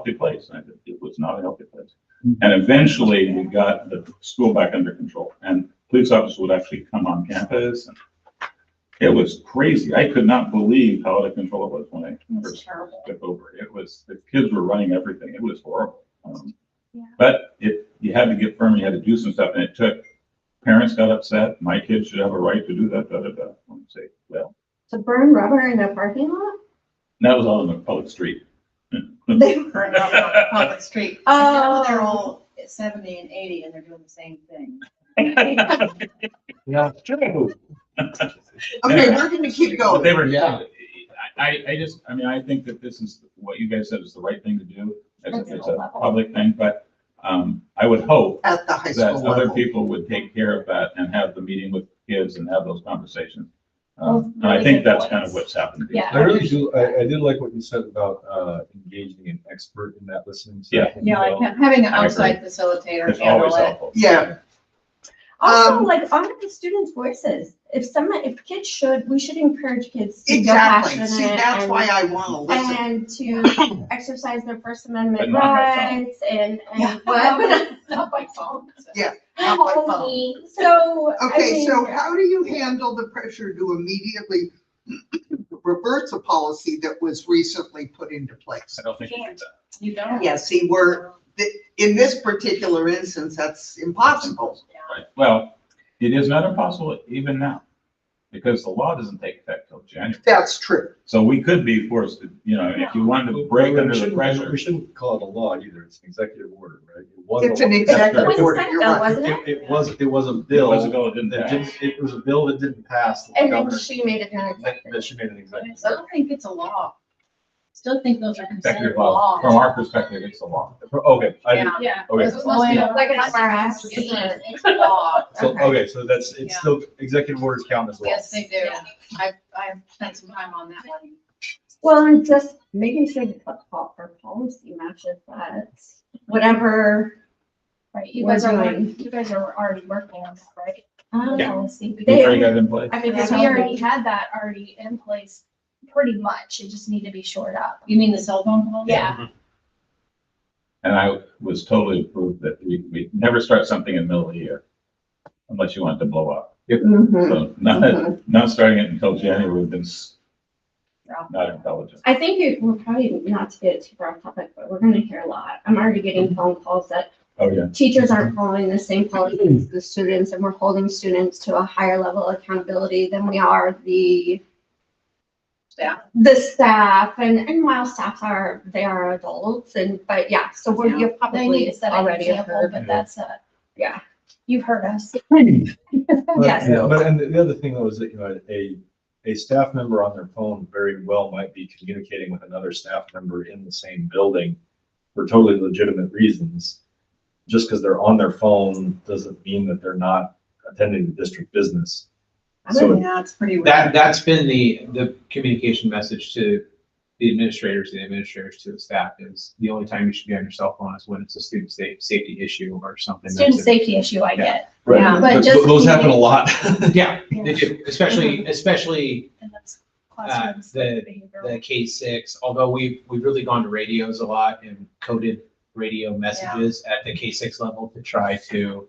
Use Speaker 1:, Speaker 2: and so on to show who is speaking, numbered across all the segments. Speaker 1: healthy place, and it- it was not a healthy place. And eventually, we got the school back under control, and police officers would actually come on campus. and It was crazy. I could not believe how out of control it was when I
Speaker 2: It's
Speaker 1: first
Speaker 2: terrible.
Speaker 1: took over. It was, the kids were running everything. It was horrible. Um,
Speaker 2: Yeah.
Speaker 1: But it, you had to get firm, you had to do some stuff, and it took, parents got upset, my kids should have a right to do that, da, da, da. I'm say, well,
Speaker 3: To burn rubber in a parking lot?
Speaker 1: and that was all in the public street.
Speaker 3: They
Speaker 2: Burned up on the public street.
Speaker 3: Oh.
Speaker 2: Now they're all seventy and eighty and they're doing the same thing.
Speaker 4: Yeah, true.
Speaker 3: Okay, we're gonna keep
Speaker 1: But
Speaker 3: going.
Speaker 1: they were,
Speaker 4: Yeah.
Speaker 1: I, I- I just, I mean, I think that this is, what you guys said is the right thing to do. It's a, it's a public thing, but, um, I would hope
Speaker 3: At the high
Speaker 1: that
Speaker 3: school
Speaker 1: other
Speaker 3: level.
Speaker 1: people would take care of that and have the meeting with kids and have those conversations.
Speaker 2: Well,
Speaker 1: Um, and I
Speaker 2: really
Speaker 1: think
Speaker 2: good
Speaker 1: that's kind
Speaker 2: points.
Speaker 1: of what's happened.
Speaker 2: Yeah.
Speaker 5: I really do, I, I did like what you said about, uh, engaging an expert in that listening. session.
Speaker 2: Yeah, like ha- having an
Speaker 1: I agree.
Speaker 2: outside facilitator
Speaker 1: It's always
Speaker 2: handle it.
Speaker 1: helpful.
Speaker 3: Yeah,
Speaker 6: Also,
Speaker 3: Um,
Speaker 6: like, honor the students' voices. If some, if kids should, we should encourage kids to feel
Speaker 3: exactly. See,
Speaker 6: passionate
Speaker 3: that's why
Speaker 6: and,
Speaker 3: I wanna listen.
Speaker 6: and to exercise their First Amendment
Speaker 1: But not by phone.
Speaker 6: rights and,
Speaker 2: Yeah.
Speaker 6: and what.
Speaker 2: Not by phone.
Speaker 3: Not by phone.
Speaker 6: So, I
Speaker 3: Okay, so
Speaker 6: mean,
Speaker 3: how do you handle the pressure to immediately reverse a policy that was recently put into place?
Speaker 1: I don't think you did that.
Speaker 2: You don't.
Speaker 3: Yeah, see, we're, in this particular instance, that's impossible.
Speaker 1: Right. Well, it is not impossible even now, because the law doesn't take effect till January.
Speaker 3: That's true.
Speaker 1: So we could be forced to, you know, if you wanted to break
Speaker 5: We
Speaker 1: under the
Speaker 5: shouldn't-
Speaker 1: pressure.
Speaker 5: We shouldn't call it a law either, it's an executive order, right? It was a-
Speaker 3: It's an
Speaker 6: It was
Speaker 3: executive
Speaker 6: a
Speaker 3: order,
Speaker 6: senate
Speaker 3: you're
Speaker 6: bill,
Speaker 3: right.
Speaker 6: wasn't it?
Speaker 5: It, it was, it was a
Speaker 1: It
Speaker 5: bill
Speaker 1: was a
Speaker 5: that
Speaker 1: bill, it didn't pass.
Speaker 5: didn't, it was a bill that didn't pass. that the
Speaker 6: And then
Speaker 5: governor-
Speaker 6: she made it an
Speaker 5: That
Speaker 6: executive.
Speaker 5: that she made an
Speaker 2: I
Speaker 5: executive.
Speaker 2: still think it's a law. Still think those are considered
Speaker 1: Executive law, from
Speaker 2: laws.
Speaker 1: our perspective, it's a law.
Speaker 5: Okay, I, didn't-
Speaker 2: Yeah.
Speaker 5: okay.
Speaker 2: It's supposed to be-
Speaker 6: Like an IRS.
Speaker 2: It's it's a law.
Speaker 5: so,
Speaker 6: Okay.
Speaker 5: okay, so that's, it's
Speaker 2: Yeah.
Speaker 5: still, executive orders count as law.
Speaker 2: Yes, they do. I, I spent some time on that one.
Speaker 6: Well, and just making sure the po- po- our policy matches that, whatever.
Speaker 7: Right, you
Speaker 6: We're
Speaker 7: guys are,
Speaker 6: doing-
Speaker 7: already- you guys are already working on that, right?
Speaker 6: um,
Speaker 1: Yeah.
Speaker 7: Policy.
Speaker 1: We already got it in place.
Speaker 6: I mean,
Speaker 7: Because
Speaker 6: that's
Speaker 7: we already
Speaker 6: already,
Speaker 7: had that already in place, pretty much, it just need to be shored up.
Speaker 2: You mean the cell phone policy?
Speaker 7: Yeah.
Speaker 1: And I was totally approved that we, we never start something in the middle of the year unless you want it to blow up.
Speaker 3: Mhm.
Speaker 1: So not, not starting it until January would have been s-
Speaker 2: Mm-hmm.
Speaker 1: not intelligent.
Speaker 6: I think it, we're probably not to get too far off topic, but we're gonna hear a lot. I'm already getting phone calls that
Speaker 1: Mm-hmm. Oh, yeah.
Speaker 6: teachers aren't following the same policies as the students, and we're holding students to a higher level of accountability than we are the
Speaker 2: Staff.
Speaker 6: the staff, and, and while staff are, they are adults, and, but yeah, so we're, you're
Speaker 7: They need
Speaker 6: probably
Speaker 7: to set an
Speaker 6: already
Speaker 7: example,
Speaker 6: heard.
Speaker 7: but that's a.
Speaker 6: Yeah.
Speaker 7: You've heard us.
Speaker 5: But,
Speaker 6: Yes.
Speaker 5: yeah, But, and the other thing though is that, you know, a, a staff member on their phone very well might be communicating with another staff member in the same building for totally legitimate reasons. Just because they're on their phone doesn't mean that they're not attending the district business. So
Speaker 2: Yeah, it's pretty weird.
Speaker 8: That, that's been the, the communication message to the administrators, the administrators to the staff is the only time you should be on your cell phone is when it's a student sa- safety issue or something.
Speaker 7: Student
Speaker 8: that's a-
Speaker 7: safety issue, I get.
Speaker 5: Right.
Speaker 2: Yeah.
Speaker 7: But
Speaker 5: Th-
Speaker 7: just-
Speaker 5: Those happen a lot.
Speaker 8: Yeah, they do, especially, especially uh,
Speaker 7: And that's classrooms,
Speaker 8: the-
Speaker 7: behavioral.
Speaker 8: the K six, although we've, we've really gone to radios a lot and coded radio messages at the K six level to try to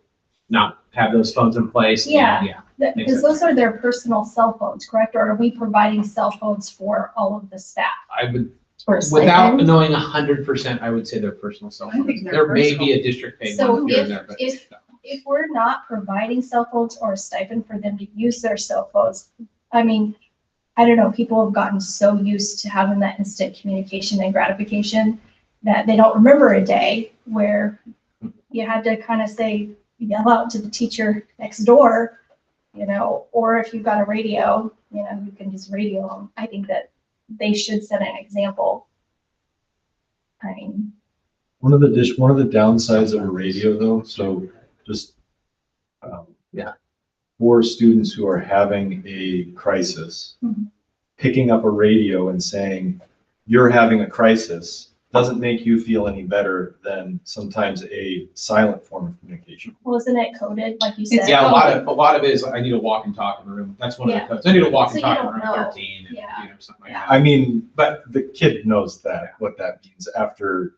Speaker 8: not have those phones in place. and,
Speaker 7: Yeah.
Speaker 8: Yeah.
Speaker 7: That-
Speaker 8: Makes
Speaker 7: Because those are their personal cell phones, correct? Or are we providing cell phones for all of the staff?
Speaker 8: I would,
Speaker 7: Or a stipend?
Speaker 8: without knowing a hundred percent, I would say their personal cell
Speaker 2: I think
Speaker 8: phones.
Speaker 2: they're
Speaker 8: There may be
Speaker 2: personal.
Speaker 8: a district paid
Speaker 7: So
Speaker 8: one here
Speaker 7: if-
Speaker 8: and there, but.
Speaker 7: if- if we're not providing cell phones or a stipend for them to use their cell phones, I mean, I don't know, people have gotten so used to having that instant communication and gratification that they don't remember a day where you had to kind of say, yell out to the teacher next door, you know, or if you've got a radio, you know, you can just radio them. I think that they should set an example. I mean,
Speaker 5: One of the dish, one of the downsides of a radio though, so just. um,
Speaker 8: Yeah.
Speaker 5: For students who are having a crisis,
Speaker 7: Mhm.
Speaker 5: picking up a radio and saying, you're having a crisis, doesn't make you feel any better than sometimes a silent form of communication.
Speaker 7: wasn't it coded, like you
Speaker 2: It's-
Speaker 7: said?
Speaker 8: Yeah, a lot of, a lot of it is, I need to walk and talk in the room, that's one of the
Speaker 7: Yeah.
Speaker 8: codes, I need to walk
Speaker 7: So
Speaker 8: and
Speaker 7: you
Speaker 8: talk in
Speaker 7: don't
Speaker 8: room
Speaker 7: know.
Speaker 8: thirteen, and, you
Speaker 7: Yeah.
Speaker 8: know, something like
Speaker 7: Yeah.
Speaker 8: that.
Speaker 5: I mean, but the kid knows that, what that means after